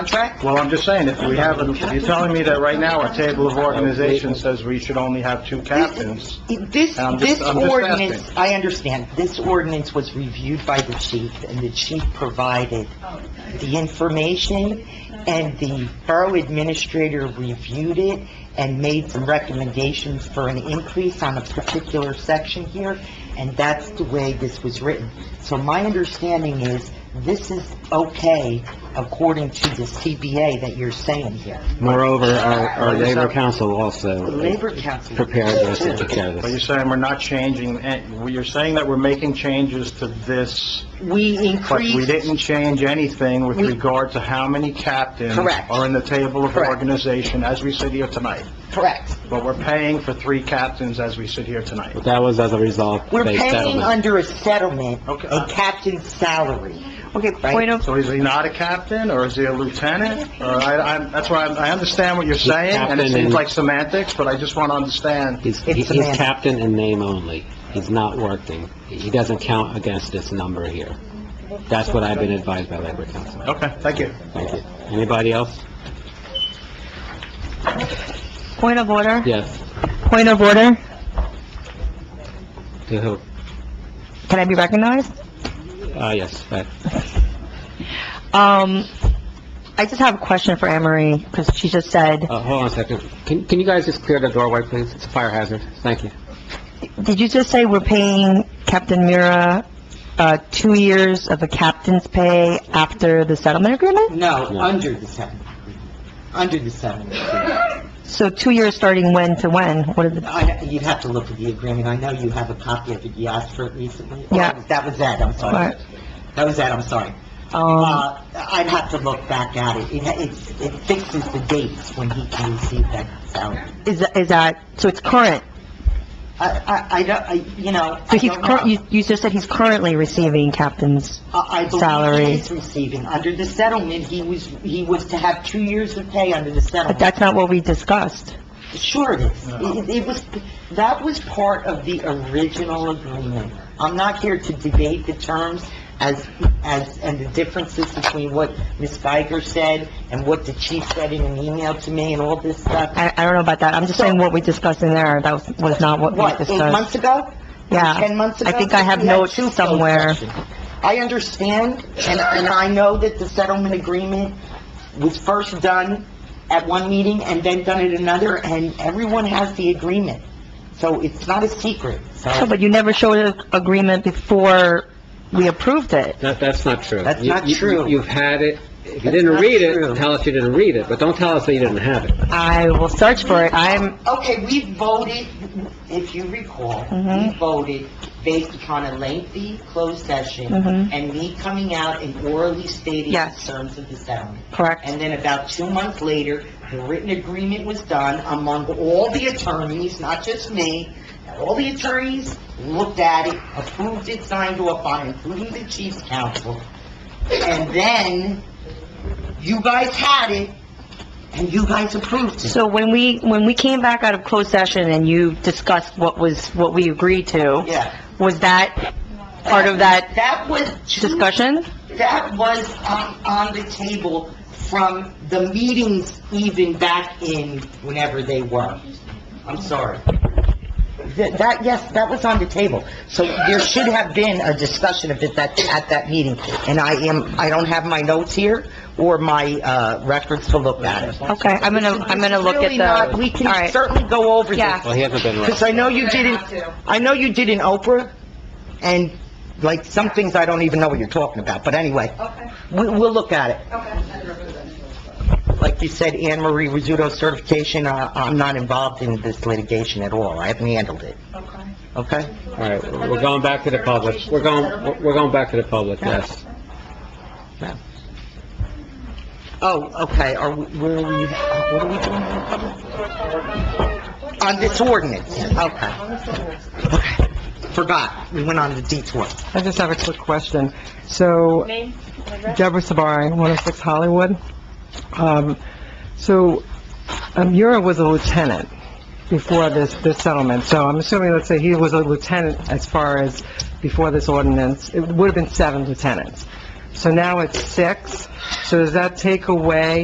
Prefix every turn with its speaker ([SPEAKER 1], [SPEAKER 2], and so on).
[SPEAKER 1] contract?
[SPEAKER 2] Well, I'm just saying, if we have, you're telling me that right now, our table of organization says we should only have two captains.
[SPEAKER 1] This,
[SPEAKER 2] I'm just-
[SPEAKER 1] this
[SPEAKER 2] I'm just
[SPEAKER 1] ordinance, I understand, this ordinance was reviewed by the chief, and the chief provided the information, and the borough administrator reviewed it and made some recommendations for an increase on a particular section here, and that's the way this was written. So my understanding is, this is okay according to the CBA that you're saying here.
[SPEAKER 3] Moreover, our, our labor council also
[SPEAKER 1] Labor Council.
[SPEAKER 3] prepared this and took care of
[SPEAKER 2] But you're
[SPEAKER 3] this.
[SPEAKER 2] saying we're not changing, eh, you're saying that we're making changes to this,
[SPEAKER 1] We
[SPEAKER 2] but we
[SPEAKER 1] increased,
[SPEAKER 2] didn't change anything with
[SPEAKER 1] We-
[SPEAKER 2] regard to how many captains
[SPEAKER 1] Correct.
[SPEAKER 2] are in the table of
[SPEAKER 1] Correct.
[SPEAKER 2] organization as we sit here tonight.
[SPEAKER 1] correct.
[SPEAKER 2] But we're paying for three captains as we sit here tonight.
[SPEAKER 3] But that was as a result of
[SPEAKER 1] We're
[SPEAKER 3] a
[SPEAKER 1] paying
[SPEAKER 3] settlement.
[SPEAKER 1] under a settlement,
[SPEAKER 2] Okay.
[SPEAKER 1] a captain's salary. Okay,
[SPEAKER 4] Point of,
[SPEAKER 2] So is he not a captain, or is he a lieutenant? Or I, I, that's why I I understand what you're saying, and it
[SPEAKER 3] captain
[SPEAKER 2] seems
[SPEAKER 3] and-
[SPEAKER 2] like semantics, but I just want to understand.
[SPEAKER 3] He's,
[SPEAKER 1] It's a
[SPEAKER 3] he's
[SPEAKER 1] man.
[SPEAKER 3] captain in name only. He's not working. He doesn't count against this number here. That's what I've been advised by labor council.
[SPEAKER 2] Okay, thank you.
[SPEAKER 3] Thank you. Anybody else?
[SPEAKER 4] point of order,
[SPEAKER 3] Yes.
[SPEAKER 4] point of order.
[SPEAKER 3] To who?
[SPEAKER 4] Can I be recognized?
[SPEAKER 3] Uh, yes, but
[SPEAKER 4] Um, I just have a question for Anne Marie, because she just said,
[SPEAKER 3] Uh, hold on a second. Can, can you guys just clear the doorway, please? It's a fire hazard. Thank you.
[SPEAKER 4] did you just say we're paying Captain Mira, uh, two years of a captain's pay after the settlement agreement?
[SPEAKER 1] No,
[SPEAKER 3] No.
[SPEAKER 1] under the settlement. Under the settlement. agreement.
[SPEAKER 4] So two years starting when to when? What is the,
[SPEAKER 1] I- You'd have to look at the agreement. I know you have a copy of it. You asked for it recently.
[SPEAKER 4] Yeah.
[SPEAKER 1] That was Ed, I'm sorry.
[SPEAKER 4] Right.
[SPEAKER 1] That was Ed, I'm sorry.
[SPEAKER 4] um,
[SPEAKER 1] Uh, I'd have to look back at it. It, it's- it fixes the dates when he can receive that salary.
[SPEAKER 4] is, that- is that, so it's current?
[SPEAKER 1] I, I, I don't, I, you know, I
[SPEAKER 4] So he's,
[SPEAKER 1] don't know.
[SPEAKER 4] cur- you, you just said he's currently receiving captain's,
[SPEAKER 1] I I believe
[SPEAKER 4] Salary.
[SPEAKER 1] he is receiving, under the settlement, he was, he was to have two years of pay under the
[SPEAKER 4] but
[SPEAKER 1] settlement.
[SPEAKER 4] that's not what we discussed.
[SPEAKER 1] Sure it is. It- It was, that was part of the original agreement. I'm not here to debate the terms as, as, and the differences between what Ms. Geiger said and what the chief said in an email to me and all this stuff.
[SPEAKER 4] I, I don't know about that. I'm just saying what we discussed in there, that was, was not what we
[SPEAKER 1] What,
[SPEAKER 4] discussed.
[SPEAKER 1] eight months ago?
[SPEAKER 4] Yeah.
[SPEAKER 1] 10 months ago?
[SPEAKER 4] I think I have
[SPEAKER 1] We had
[SPEAKER 4] notes
[SPEAKER 1] two closed
[SPEAKER 4] somewhere.
[SPEAKER 1] sessions. I understand, and, and I know that the settlement agreement was first done at one meeting and then done at another, and everyone has the agreement. So it's not a secret,
[SPEAKER 4] No,
[SPEAKER 1] so
[SPEAKER 4] But you never showed an agreement before we approved it.
[SPEAKER 3] That, that's not true.
[SPEAKER 1] That's
[SPEAKER 3] You-
[SPEAKER 1] not
[SPEAKER 3] you-
[SPEAKER 1] true.
[SPEAKER 3] You've had it. If you
[SPEAKER 1] That's
[SPEAKER 3] didn't
[SPEAKER 1] not
[SPEAKER 3] read
[SPEAKER 1] true.
[SPEAKER 3] it, tell us you didn't read it, but don't tell us that you didn't have it.
[SPEAKER 4] I will search for it. I'm,
[SPEAKER 1] Okay, we voted, if you recall, we
[SPEAKER 4] Mhm.
[SPEAKER 1] voted based upon a lengthy closed session
[SPEAKER 4] Mhm.
[SPEAKER 1] and me coming out and orally stating the
[SPEAKER 4] Yes.
[SPEAKER 1] terms of the settlement.
[SPEAKER 4] correct.
[SPEAKER 1] And then about two months later, the written agreement was done among all the attorneys, not just me. All the attorneys looked at it, approved it, signed off on it, including the chief's counsel. And then you guys had it, and you guys approved it.
[SPEAKER 4] So when we, when we came back out of closed session and you discussed what was, what we agreed to,
[SPEAKER 1] Yeah.
[SPEAKER 4] was that part of that
[SPEAKER 1] That was two-
[SPEAKER 4] discussion?
[SPEAKER 1] That was on, on the table from the meetings even back in whenever they were. I'm sorry. Th- That, yes, that was on the table. So there should have been a discussion of it that, at that meeting. And I am, I don't have my notes here or my, uh, records to look at.
[SPEAKER 4] Okay, I'm gonna, I'm gonna look
[SPEAKER 1] Really
[SPEAKER 4] at
[SPEAKER 1] not-
[SPEAKER 4] the,
[SPEAKER 1] We
[SPEAKER 4] all
[SPEAKER 1] can
[SPEAKER 4] right.
[SPEAKER 1] certainly go over this.
[SPEAKER 4] Yeah.
[SPEAKER 3] Well, he hasn't been right.
[SPEAKER 1] Because I know you did
[SPEAKER 5] have
[SPEAKER 1] not
[SPEAKER 5] to.
[SPEAKER 1] I know you did in Oprah, and like, some things I don't even know what you're talking about, but anyway,
[SPEAKER 5] Okay,
[SPEAKER 1] we, we'll look at it.
[SPEAKER 5] okay.
[SPEAKER 1] Like you said, Anne Marie Rizzuto's certification, uh, I'm not involved in this litigation at all, I haven't handled it,
[SPEAKER 5] Okay.
[SPEAKER 1] okay?
[SPEAKER 3] All right, we're going back to the public. We're going, we're going back to the public, yes.
[SPEAKER 1] Oh, okay, are, we- where are we, uh, what are we doing? On this ordinance, okay. Okay, forgot, we went on the detour.
[SPEAKER 6] I just have a quick question. So, Deborah Sabari, 106 Hollywood. Um, So, um, Mura was a lieutenant before this, this settlement, so I'm assuming, let's say, he was a lieutenant as far as before this ordinance, it would have been seven lieutenants. So now it's six. So does that take away